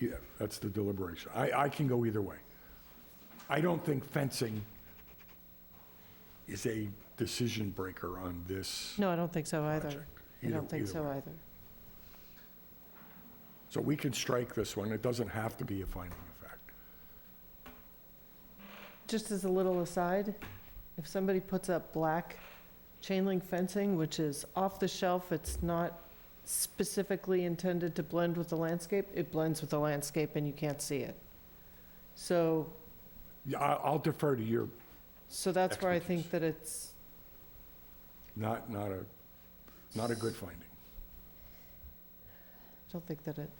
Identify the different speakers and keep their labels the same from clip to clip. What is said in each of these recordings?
Speaker 1: Yeah, that's the deliberation. I, I can go either way. I don't think fencing is a decision breaker on this.
Speaker 2: No, I don't think so either.
Speaker 1: Project.
Speaker 2: I
Speaker 1: Either-
Speaker 2: don't think
Speaker 1: either
Speaker 2: so
Speaker 1: way.
Speaker 2: either.
Speaker 1: So we can strike this one. It doesn't have to be a finding of fact.
Speaker 2: Just as a little aside, if somebody puts up black chain link fencing, which is off the shelf, it's not specifically intended to blend with the landscape, it blends with the landscape and you can't see it. So,
Speaker 1: Yeah, I- I'll defer to your,
Speaker 2: so that's where I think
Speaker 1: Expertise.
Speaker 2: that it's,
Speaker 1: not, not a, not a good finding.
Speaker 2: I don't think that it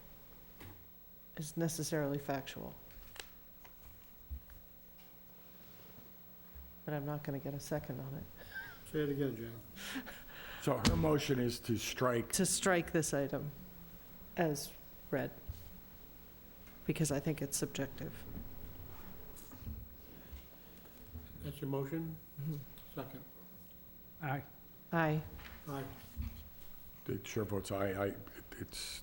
Speaker 2: is necessarily factual. But I'm not gonna get a second on it.
Speaker 3: Say it again, Jane.
Speaker 1: So her motion is to strike,
Speaker 2: To strike this item as read, because I think it's subjective.
Speaker 3: That's your motion? Second.
Speaker 4: Aye.
Speaker 2: Aye.
Speaker 3: Aye.
Speaker 1: the chair votes aye, I, it's,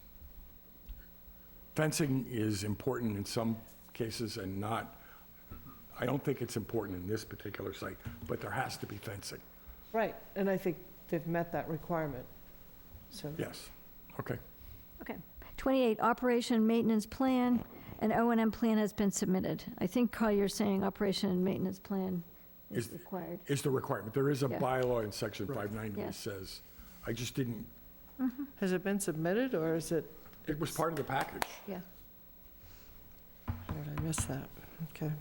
Speaker 1: fencing is important in some cases and not, I don't think it's important in this particular site, but there has to be fencing.
Speaker 2: Right, and I think they've met that requirement, so.
Speaker 1: Yes, okay.
Speaker 5: 28, operation maintenance plan, an O and M plan has been submitted. I think, Carl, you're saying operation and maintenance plan is
Speaker 1: Is-
Speaker 5: required.
Speaker 1: Is the requirement. There is a
Speaker 5: Yeah.
Speaker 1: bylaw in section
Speaker 3: Right.
Speaker 1: 590
Speaker 5: Yeah.
Speaker 1: that says, I just didn't,
Speaker 2: Has it been submitted, or is it,
Speaker 1: it was part of the package.
Speaker 5: Yeah.
Speaker 2: how did I miss that? Okay.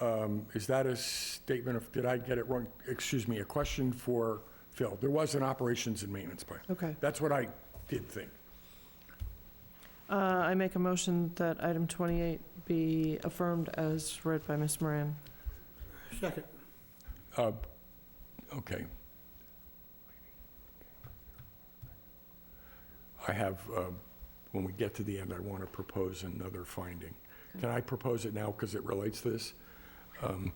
Speaker 1: Um, Is that a statement of, did I get it wrong? Excuse me, a question for Phil. There was an operations and maintenance plan.
Speaker 2: Okay.
Speaker 1: That's what I did think.
Speaker 2: Uh, I make a motion that item 28 be affirmed as read by Ms. Moran.
Speaker 3: Second.
Speaker 1: Uh, Okay. I have, uh, when we get to the end, I want to propose another finding. Can I propose it now because it relates to this? Um,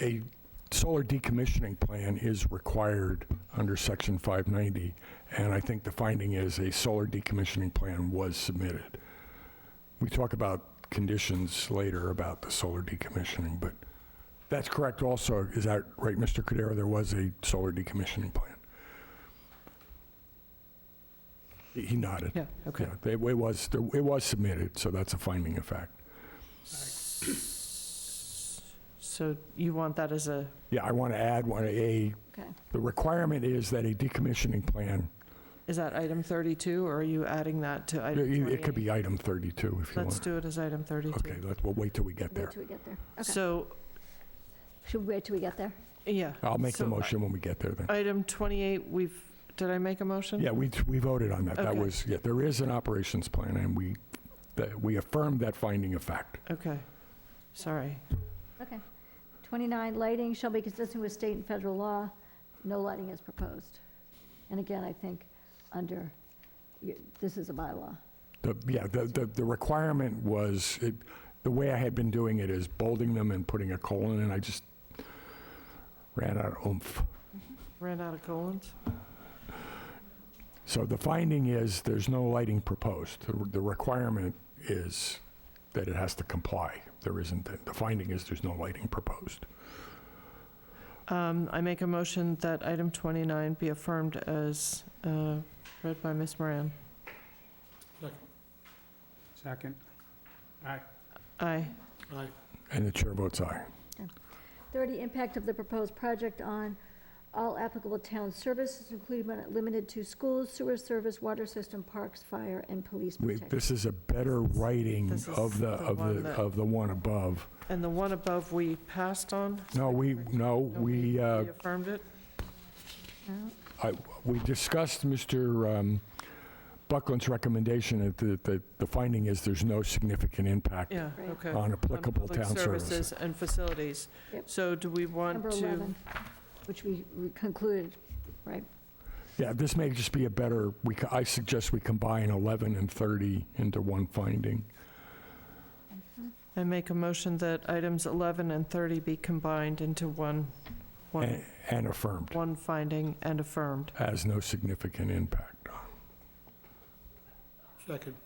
Speaker 1: A solar decommissioning plan is required under Section 590, and I think the finding is a solar decommissioning plan was submitted. We talk about conditions later about the solar decommissioning, but that's correct also, is that right, Mr. Cudero? There was a solar decommissioning plan. He he nodded.
Speaker 2: Yeah, okay.
Speaker 1: Yeah, It it was, it was submitted, so that's a finding of fact.
Speaker 2: So you want that as a,
Speaker 1: Yeah, I want to add one, a,
Speaker 5: Okay.
Speaker 1: the requirement is that a decommissioning plan,
Speaker 2: is that item 32, or are you adding that to
Speaker 1: it
Speaker 2: item 28?
Speaker 1: it could be item 32 if you
Speaker 2: Let's
Speaker 1: want.
Speaker 2: do it as item 32.
Speaker 1: Okay, let- we'll wait till we get
Speaker 5: Wait
Speaker 1: there.
Speaker 5: till we get there. Okay.
Speaker 2: So,
Speaker 5: Should we wait till we get there?
Speaker 2: yeah.
Speaker 1: I'll make the
Speaker 2: So, uh,
Speaker 1: motion when we get there then.
Speaker 2: Item 28, we've, did I make a motion?
Speaker 1: Yeah, we, we voted on that. That
Speaker 2: Okay.
Speaker 1: was, yeah, there is an operations plan and we, that- we affirmed that finding of fact.
Speaker 2: Okay, sorry.
Speaker 5: Okay. 29, lighting shall be consistent with state and federal law. No lighting is proposed. And again, I think under, you- this is a bylaw.
Speaker 1: The, yeah, the, the, the requirement was, it, the way I had been doing it is bolding them and putting a colon, and I just ran out of oomph.
Speaker 2: Ran out of colons?
Speaker 1: So the finding is, there's no lighting proposed. The, the requirement is that it has to comply. There isn't, the finding is there's no lighting proposed.
Speaker 2: Um, I make a motion that item 29 be affirmed as uh, read by Ms. Moran.
Speaker 4: Second. Aye.
Speaker 2: Aye.
Speaker 3: Aye.
Speaker 1: And the chair votes aye.
Speaker 5: 30, impact of the proposed project on all applicable town services, including but not limited to schools, sewer service, water system, parks, fire, and police
Speaker 1: We,
Speaker 5: protection.
Speaker 1: this is a better writing
Speaker 2: This is
Speaker 1: of the,
Speaker 2: the
Speaker 1: of
Speaker 2: one
Speaker 1: the,
Speaker 2: that-
Speaker 1: of the one above.
Speaker 2: And the one above we passed on?
Speaker 1: No, we, no,
Speaker 2: No,
Speaker 1: we, uh,
Speaker 2: We affirmed it?
Speaker 5: No?
Speaker 1: I- We discussed Mr. um, Buckland's recommendation that the- the the finding is there's no significant impact
Speaker 2: Yeah,
Speaker 5: Right.
Speaker 2: okay.
Speaker 1: on
Speaker 2: On
Speaker 1: applicable
Speaker 2: public
Speaker 1: town services.
Speaker 2: And facilities.
Speaker 5: Yep.
Speaker 2: So do we want
Speaker 5: Number
Speaker 2: to,
Speaker 5: 11, which we we concluded, right?
Speaker 1: Yeah, this may just be a better, we co- I suggest we combine 11 and 30 into one finding.
Speaker 2: I make a motion that items 11 and 30 be combined into one, one,
Speaker 1: a- And affirmed,
Speaker 2: one finding and affirmed.
Speaker 1: has no significant impact on.
Speaker 3: Second.